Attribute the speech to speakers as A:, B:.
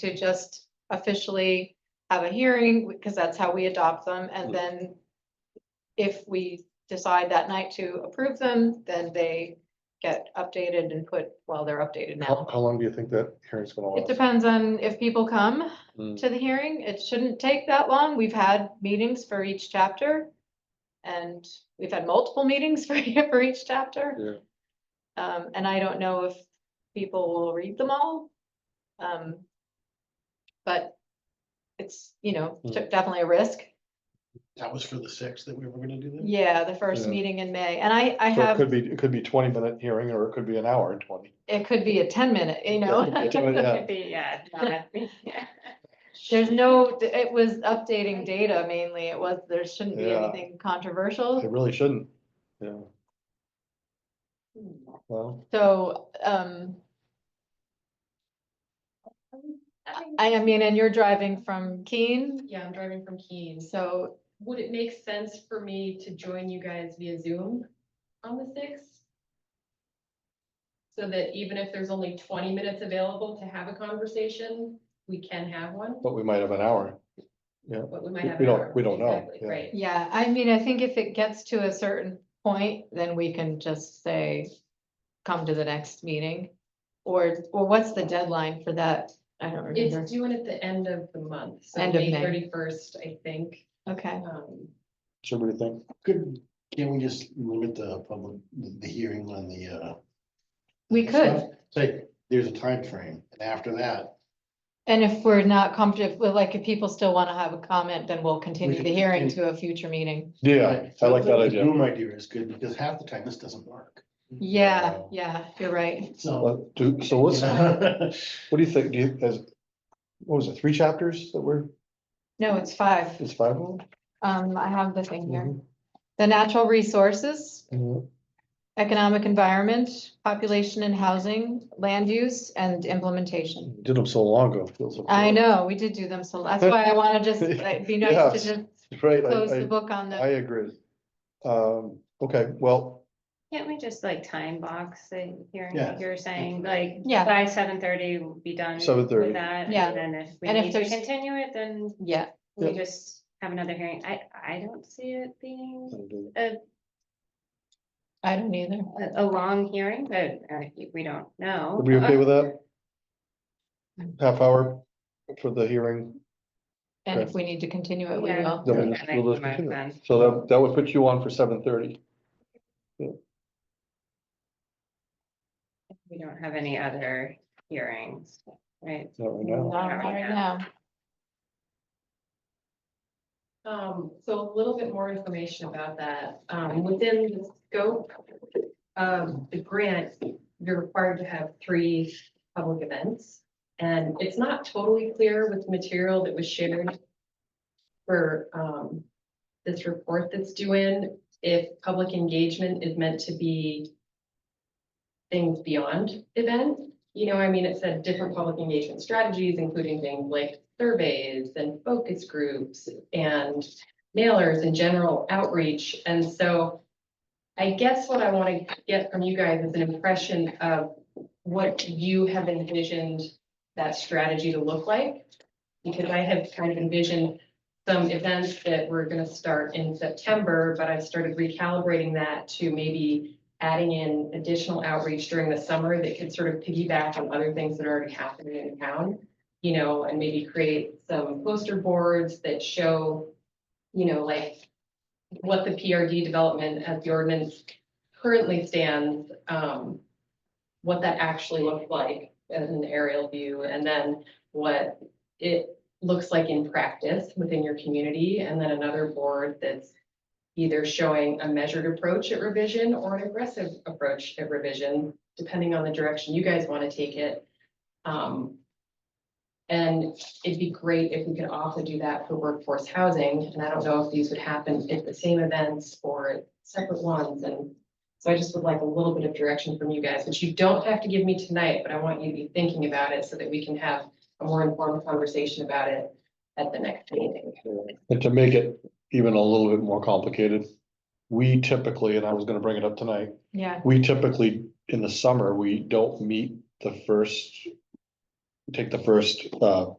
A: to just officially have a hearing, because that's how we adopt them, and then if we decide that night to approve them, then they get updated and put, well, they're updated
B: How,
A: now.
B: how long do you think that hearing's gonna
A: It
B: last?
A: depends on if people come
B: Mm.
A: to the hearing. It shouldn't take that long. We've had meetings for each chapter. And we've had multiple meetings for, for each chapter.
B: Yeah,
A: Um, and I don't know if people will read them all. Um. But it's, you know,
B: Hmm.
A: took definitely a risk.
C: That was for the sixth that we were gonna do that?
A: Yeah, the first
B: Hmm. Yeah.
A: meeting in May, and I, I
B: so it
A: have,
B: could be, it could be twenty minute hearing or it could be an hour and twenty.
A: it could be a ten minute, you know.
B: Yeah, yeah.
D: Yeah, not- yeah.
A: There's no, it was updating data mainly. It was, there shouldn't be
B: Yeah.
A: anything controversial.
B: It really shouldn't, yeah, well,
A: So, um,
D: I think-
A: I, I mean, and you're driving from Keene,
D: Yeah, I'm driving from Keene.
A: so,
D: Would it make sense for me to join you guys via Zoom on the sixth? So that even if there's only twenty minutes available to have a conversation, we can have one,
B: but we might have an hour.
D: but we might
B: We-
D: have.
B: we
D: an
B: don't-
D: hour.
B: we don't know,
D: Exactly,
B: yeah.
D: Right,
A: yeah, I mean, I think if it gets to a certain point, then we can just say, come to the next meeting. Or, or what's the deadline for that? I don't remember.
D: it's due in at the end of the month, so
A: End of
D: May
A: May.
D: thirty-first, I think.
A: Okay,
D: Um,
B: Should we think,
C: Could, can we just limit the public, the the hearing on the, uh?
A: we could.
C: stuff? Say, there's a time frame, and after that.
A: And if we're not comfortable, like, if people still want to have a comment, then we'll continue
C: can
A: the hearing to
C: continue.
A: a future meeting.
B: yeah, I like that
C: The
B: idea,
C: Zoom idea is good, because half the time this doesn't work,
A: Yeah,
C: Wow.
A: yeah, you're right.
C: so.
B: Let- do- so
C: you
B: what's, what
C: know,
B: do you think, do you, as, what was it, three chapters that were,
A: No, it's five.
B: is five of them?
A: Um, I have the thing here.
B: Mhm.
A: The natural resources,
B: Mhm.
A: economic environment, population and housing, land use and implementation.
B: Did them so long ago. it feels like-
A: I know, we did do them, so that's why I want to just, it'd be nice to just
B: Right,
A: close the
B: I,
A: book on
B: I, I
A: the,
B: agree. Um, okay, well,
E: Can't we just like time box the hearing,
C: Yeah.
E: like you're saying, like
A: Yeah.
E: by seven thirty we'll be done with
B: 7:30.
E: that?
A: Yeah.
E: And then if we
A: And if
E: need to
A: there's-
E: continue it, then
A: yeah,
E: we
B: Yeah.
E: just have another hearing. I, I don't see it being
A: I don't either.
E: a, a long hearing, but uh, we don't know.
B: Are we okay with that? Half hour for the hearing,
A: And if
B: Okay.
A: we need to continue it, we
E: Yeah.
A: will.
B: then we'll
E: Yeah,
B: just-
E: that
B: we'll
E: makes
B: just continue.
E: more sense.
B: so that, that would put you on for seven thirty.
E: We don't have any other hearings, right?
B: Not right
A: Not
B: now.
A: Right now.
D: Um, so a little bit more information about that. Um, within the scope of the grant, you're required to have three public events. And it's not totally clear with material that was shared for, um, this report that's due in, if public engagement is meant to be things beyond event. You know, I mean, it said different public engagement strategies, including things like surveys and focus groups and mailers and general outreach. And so I guess what I want to get from you guys is an impression of what you have envisioned that strategy to look like. Because I have kind of envisioned some events that were going to start in September, but I've started recalibrating that to maybe adding in additional outreach during the summer that could sort of piggyback on other things that are already happening in town. You know, and maybe create some poster boards that show, you know, like what the PRD development as the ordinance currently stands, um, what that actually looked like as an aerial view, and then what it looks like in practice within your community, and then another board that's either showing a measured approach at revision or an aggressive approach at revision, depending on the direction you guys want to take it. Um, and it'd be great if we could also do that for workforce housing, and I don't know if these would happen at the same events or at separate ones, and so I just would like a little bit of direction from you guys, which you don't have to give me tonight, but I want you to be thinking about it so that we can have a more informed conversation about it at the next meeting.
B: And to make it even a little bit more complicated, we typically, and I was gonna bring it up tonight,
A: Yeah,
B: we typically, in the summer, we don't meet the first take the first, uh,